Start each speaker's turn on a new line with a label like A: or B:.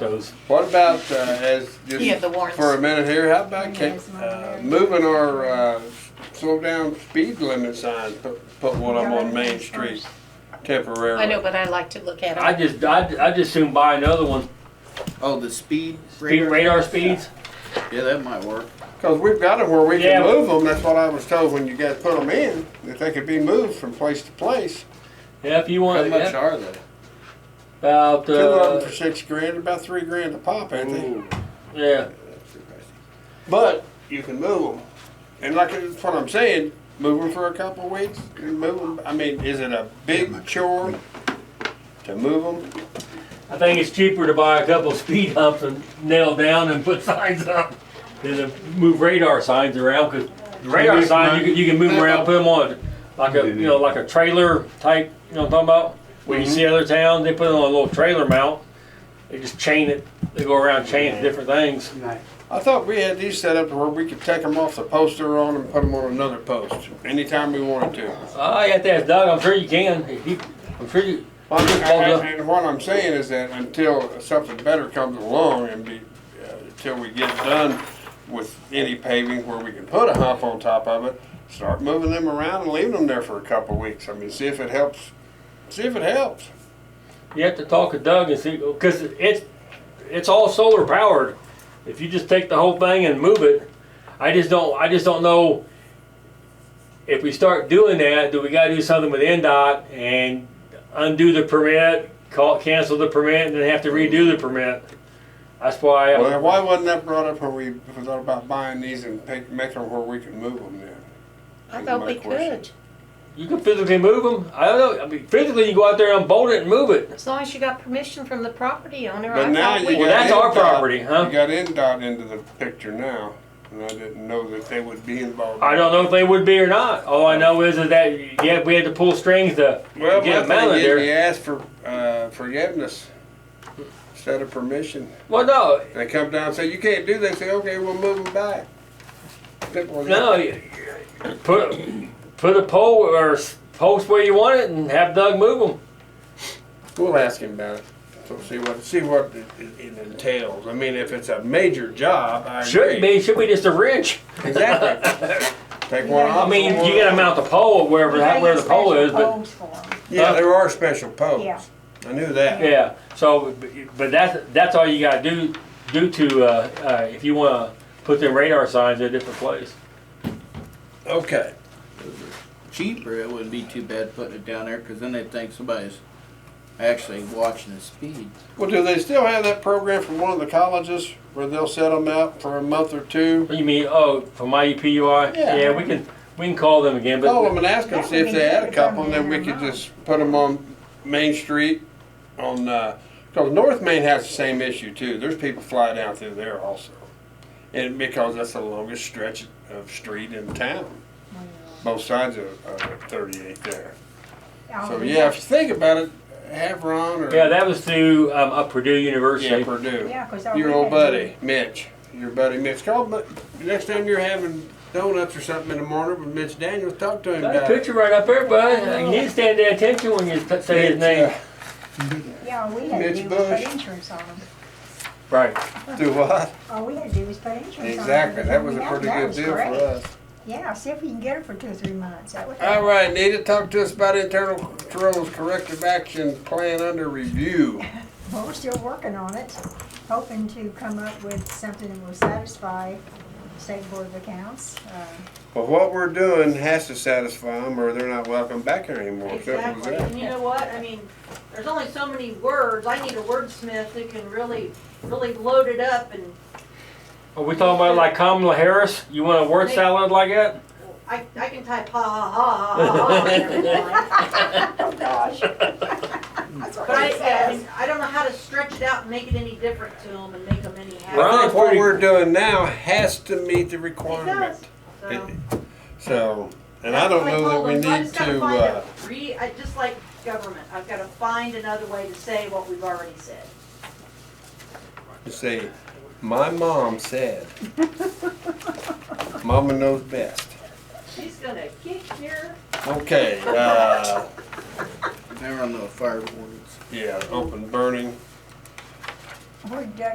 A: those.
B: What about, uh, as,
C: You have
B: just
C: the warrants.
B: for a minute here, how about ca- uh, moving our, uh, slow down speed limit signs, put, put one up on Main Street temporarily?
C: I know, but I like to look at
A: I
C: them.
A: just, I, I just soon buy another one.
D: Oh, the speed
A: Speed radar speeds.
D: Yeah, that might work.
B: Cause we've got them where we can
A: Yeah.
B: move them, that's what I was told when you guys put them in, that they could be moved from place to place.
A: Yeah, if you
D: How
A: want,
D: much
A: yeah,
D: are they?
A: about
B: Two of them
A: uh,
B: for six grand, about three grand a pop, ain't they?
D: Ooh,
A: yeah.
D: that's pricey.
B: But you can move them. And like that's what I'm saying, move them for a couple of weeks. And move them. I mean, is it a big chore to move them?
A: I think it's cheaper to buy a couple speed humps and nail down and put signs up than to move radar signs around. Cause the radar
B: Maybe-
A: signs, you can, you can move them around, put them on like a, you know, like a trailer type, you know what I'm talking about? Where you see other towns, they put it on a little trailer mount. They just chain it. They go around chaining different things.
B: I thought we had these set up where we could take them off the post they're on and put them on another post anytime we wanted to.
A: I got to ask Doug. I'm sure you can. If you, I'm sure you.
B: Well, I'm just-
A: Hold up.
B: And and what I'm saying is that until something better comes along and be, uh, until we get done with any paving where we can put a hump on top of it, start moving them around and leaving them there for a couple of weeks. I mean, see if it helps, see if it helps.
A: You have to talk to Doug and see, because it's, it's all solar powered. If you just take the whole thing and move it, I just don't, I just don't know. If we start doing that, do we gotta do something with NDOT and undo the permit, call, cancel the permit, and then have to redo the permit? That's why,
B: Well,
A: I-
B: then why wasn't that brought up when we thought about buying these and pick- making them where we can move them then?
C: I thought we
B: My question.
C: could,
A: you can physically move them. I don't know, I mean, physically you go out there and unbolt it and move it.
C: as long as you got permission from the property owner.
B: But
C: I
B: now
C: thought we
B: you
A: Well,
B: got
A: that's our
B: NDOT
A: property, huh?
B: You got NDOT into the picture now, and I didn't know that they would be involved.
A: I don't know if they would be or not. All I know is that, yeah, we had to pull strings to
B: Well,
A: get
B: my
A: them out of
B: thing
A: there.
B: is, you ask for uh, forgiveness instead of permission.
A: Well, no,
B: They come down and say, you can't do this, say, okay, we'll move them back. Simple as
A: no,
B: that.
A: you- put put a pole or s- post where you want it and have Doug move them.
B: We'll ask him about it, so see what, see what it- it it entails. I mean, if it's a major job, I agree.
A: Should be, should be just a wrench.
B: Exactly. Take one
A: I
B: off.
A: mean,
B: one
A: you gotta
B: off.
A: mount the pole wherever where the pole is, but
B: Yeah, there are special posts.
E: Yeah.
B: I knew that.
A: Uh. yeah. So, but that's that's all you gotta do do to uh, uh, if you wanna put them radar signs in a different place.
B: Okay.
D: Cheaper, it wouldn't be too bad putting it down there, cause then they'd think somebody's actually watching the speed.
B: Well, do they still have that program from one of the colleges where they'll set them out for a month or two?
A: What do you mean? Oh, for my EPUI?
B: Yeah.
A: we can we can call them again,
B: Call
A: but
B: them and ask them, see if they had a couple, and then we could just put them on Main Street on, uh 'cause cause North Main has the same issue too. There's people fly down through there also. And because that's the longest stretch of street in town, both sides of, of thirty-eight there. So, yeah, if you think about it, have Ron or.
A: yeah, that was through um, up Purdue
B: Yeah,
A: University.
B: Purdue.
E: Yeah, 'cause all
B: Your
E: we
B: old
E: had-
B: buddy, Mitch. Your buddy Mitch. Call, but next time you're having donuts or something in the morning with Mitch Daniels, talk to him
A: Got a
B: about it.
A: picture right up there, bud. You need to stand at attention when you t- say his
B: Mitch,
A: name.
E: Yeah, all we had to
B: Mitch
E: do was
B: Bush.
E: put insurance on them.
A: Right.
B: uh, Do what?
E: All we had to do was put insurance on them.
B: Exactly. That was a pretty
E: that
B: good
E: was
B: deal for
E: great.
B: us.
E: Yeah, see if we can get it for two or three months. That would
B: All
E: help.
B: right, Nita, talk to us about internal controls corrective action plan under review.
E: Well, we're still working on it, hoping to come up with something that will satisfy State Board of Accounts. Uh,
B: Well, what we're doing has to satisfy them, or they're not welcome back here anymore. Simple
F: Exactly,
B: as that.
F: and you know what, I mean, there's only so many words, I need a wordsmith who can really, really load it up and
A: Are we talking about like Kamala Harris? You want a word salad like that?
F: I, I can type ha ha ha ha ha ha. and everything.
E: Oh, gosh. That's what
F: But I,
E: it
F: I
E: says.
F: mean, I don't know how to stretch it out and make it any different to them and make them any
A: Right.
F: happier.
B: I
A: Ron's
B: think what
A: pretty-
B: we're doing now has to meet the
F: It
B: requirement.
F: does, so.
B: So, and I don't
F: Like
B: know that
F: all
B: we
F: those, I
B: need
F: just gotta
B: to,
F: find a
B: uh,
F: Re, I, just like government, I've gotta find another way to say what we've already said.
B: say, my mom said. Mama knows best.
F: She's gonna kick your,
B: Okay, uh,
D: Never on the fire wardens.
B: yeah, open burning.
E: would uh,